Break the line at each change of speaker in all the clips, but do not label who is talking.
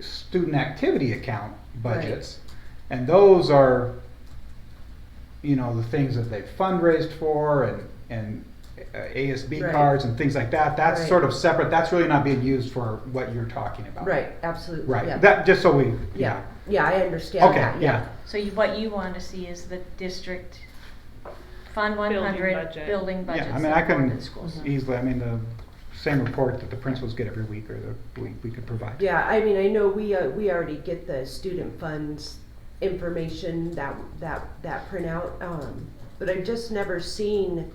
student activity account
Right.
budgets. And those are, you know, the things that they've fundraised for and, and uh, ASB
Right.
cards and things like that. That's
Right.
sort of separate, that's really not being used for what you're talking about.
Right, absolutely, yeah.
Right, that, just so we,
Yeah,
yeah.
yeah, I understand
Okay,
that,
yeah,
yeah.
So you, what you want to see is the district fund one
Building
hundred,
budget.
building budget
yeah, I mean, I
support
can
in schools.
easily, I mean, the same report that the principals get every week or the, we, we could provide.
Yeah, I mean, I know we, uh, we already get the student funds information, that, that, that printout, um, but I've just never seen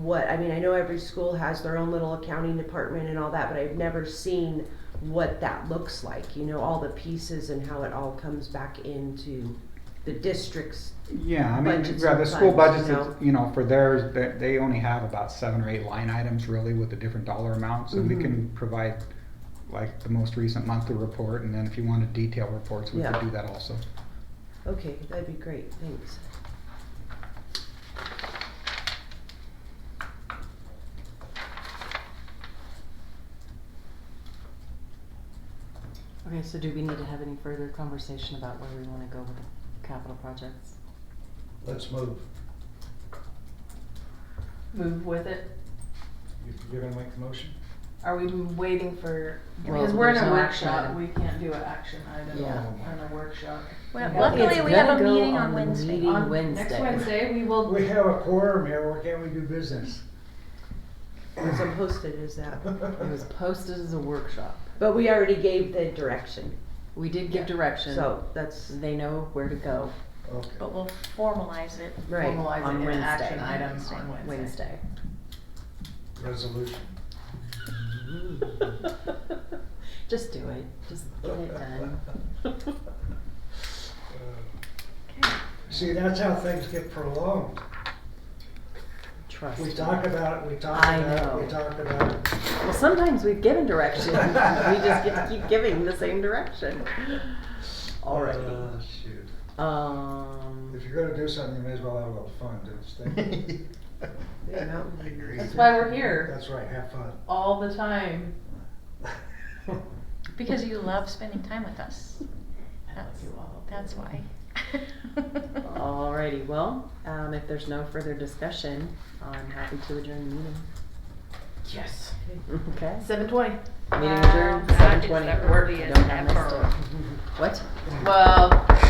what, I mean, I know every school has their own little accounting department and all that, but I've never seen what that looks like, you know, all the pieces and how it all comes back into the district's,
Yeah, I mean,
budgets
yeah, the
and
school
funds,
budgets,
you know.
it's- you know, for theirs, they, they only have about seven or eight line items really with the different dollar amounts. And we
Mhm.
can provide like the most recent monthly report and then if you wanted detailed reports, we
Yeah.
could do that also.
okay, that'd be great, thanks.
Okay, so do we need to have any further conversation about where we wanna go with the capital projects?
Let's move.
move with it?
You- You're gonna make the motion?
Are we waiting for,
Well,
because we're in
there's
a
no action
workshop,
item.
we can't do an action item
Yeah.
on a workshop.
Well,
Yeah.
luckily,
It's
we have a
gonna go
meeting
on
on
the
Wednesday.
meeting
On
Wednesday.
Next Wednesday, we will.
We have a quorum here, why can't we do business?
As I'm posted as that,
It was posted as a workshop.
but we already gave the direction,
We did give direction, so
so that's,
they know where to go
But
Okay.
we'll formalize it.
right.
Formalize
on
it in
Wednesday.
action items on Wednesday.
Wednesday.
Resolution.
Just do it, just get it done.
Uh, See, that's how things get prolonged.
Trust
We
me.
talk about it, we talk
I
about it, we
know.
talk about it.
Well, sometimes we've given direction, we just get to keep giving the same direction.
Uh,
Alrighty,
Oh, Shoot.
um.
If you're gonna do something, you may as well have a little fun, don't you think?
You know?
I agree.
That's why we're here,
That's right, have fun.
all the time.
Because you love spending time with us.
I love
That's-
you all.
That's why.
Alrighty, well, um, if there's no further discussion, I'm happy to adjourn the meeting.
Yes.
Okay.
Seven twenty.
Uh,
Meeting adjourned,
Um,
seven twenty,
that
work,
really
I
is
don't have
ever.
What?
Well,